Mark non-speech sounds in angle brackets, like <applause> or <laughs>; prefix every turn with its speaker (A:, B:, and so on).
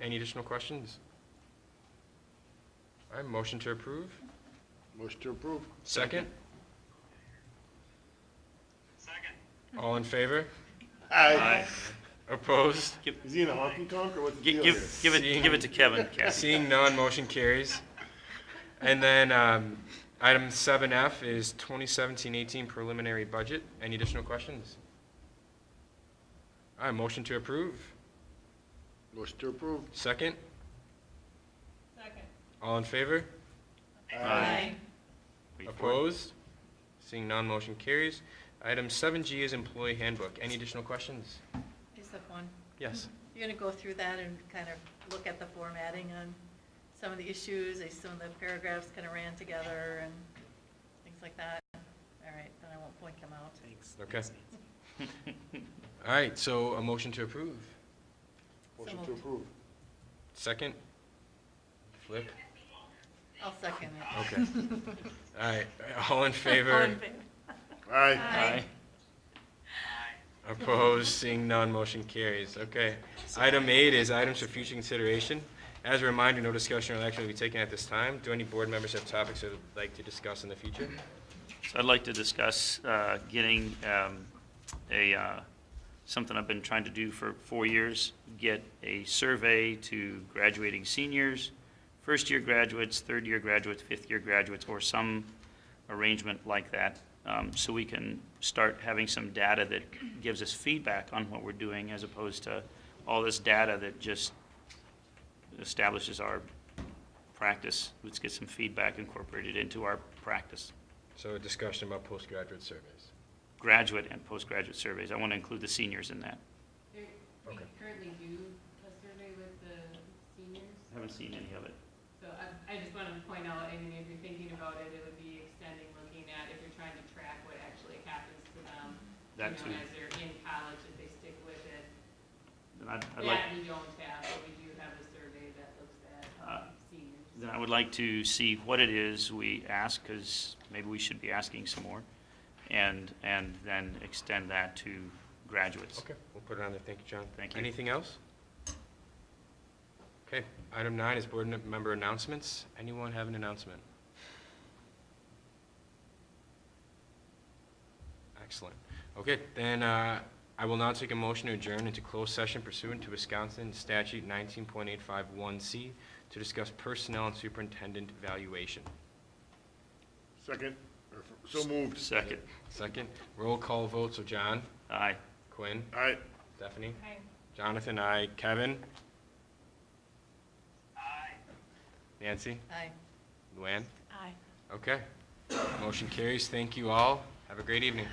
A: Any additional questions? All right, motion to approve?
B: Motion to approve.
A: Second?
C: Second.
A: All in favor?
B: Aye.
A: Opposed?
B: Is he in a honky tonk or what's the
D: Give,
B: deal here?
D: give, give it, give it to Kevin, Kathy.
A: Seeing none, motion carries. And then um, item 7F is 2017-18 preliminary budget. Any additional questions? All right, motion to approve?
B: Motion to approve.
A: Second?
E: Second.
A: All in favor?
D: Aye.
A: Opposed? Seeing none, motion carries. Item 7G is employee handbook. Any additional questions?
E: I just have one.
A: Yes.
E: You're going to go through that and kind of look at the formatting on some of the issues, eh, some of the paragraphs kind of ran together and things like that. All right, then I won't point them out.
A: Okay. All right, so a motion to approve.
B: Motion
E: So
B: to
E: moved.
B: approve.
A: Second? Flip?
E: I'll second it.
A: Okay.
E: <laughs>
A: All right, all in
E: All
A: favor?
E: in favor?
B: Aye.
D: Aye.
A: Opposed, seeing none, motion carries. Okay. Item eight is items for future consideration. As a reminder, no discussion or action will be taken at this time. Do any board members have topics they would like to discuss in the future?
D: So I'd like to discuss uh, getting um, a, uh, something I've been trying to do for four years, get a survey to graduating seniors, first-year graduates, third-year graduates, fifth-year graduates, or some arrangement like that, um, so we can start having some data that gives us feedback on what we're doing, as opposed to all this data that just establishes our practice. Let's get some feedback incorporated into our practice
A: So a discussion about postgraduate surveys.
D: graduate and postgraduate surveys. I want to include the seniors in that.
F: There, we
A: Okay.
F: currently do a survey with the seniors,
D: Haven't seen any of it.
F: so I, I just wanted to point out, I mean, if you're thinking about it, it would be extending, looking at if you're trying to track what actually happens to them. you
D: That
F: know,
D: too.
F: As they're in college, if they stick with it,
D: Then I'd, I'd like,
F: that we don't have, but we do have a survey that looks at
D: Uh,
F: um, seniors.
D: then I would like to see what it is we ask, because maybe we should be asking some more, and, and then extend that to graduates.
A: Okay, we'll put it on there. Thank you, John.
D: Thank you.
A: Anything else? Okay, item nine is board member announcements. Anyone have an announcement? Excellent. Okay, then uh, I will now take a motion to adjourn into closed session pursuant to Wisconsin Statute 19.851C to discuss personnel and superintendent valuation.
B: Second, or f- so moved.
D: Second.
A: Second, roll call vote, so John,
D: Aye.
A: Quinn,
B: Aye.
A: Stephanie,
E: Aye.
A: Jonathan, I, Kevin? Aye. Nancy?
E: Aye.
A: Luann?
E: Aye.
A: Okay. Motion carries. Thank you all. Have a great evening.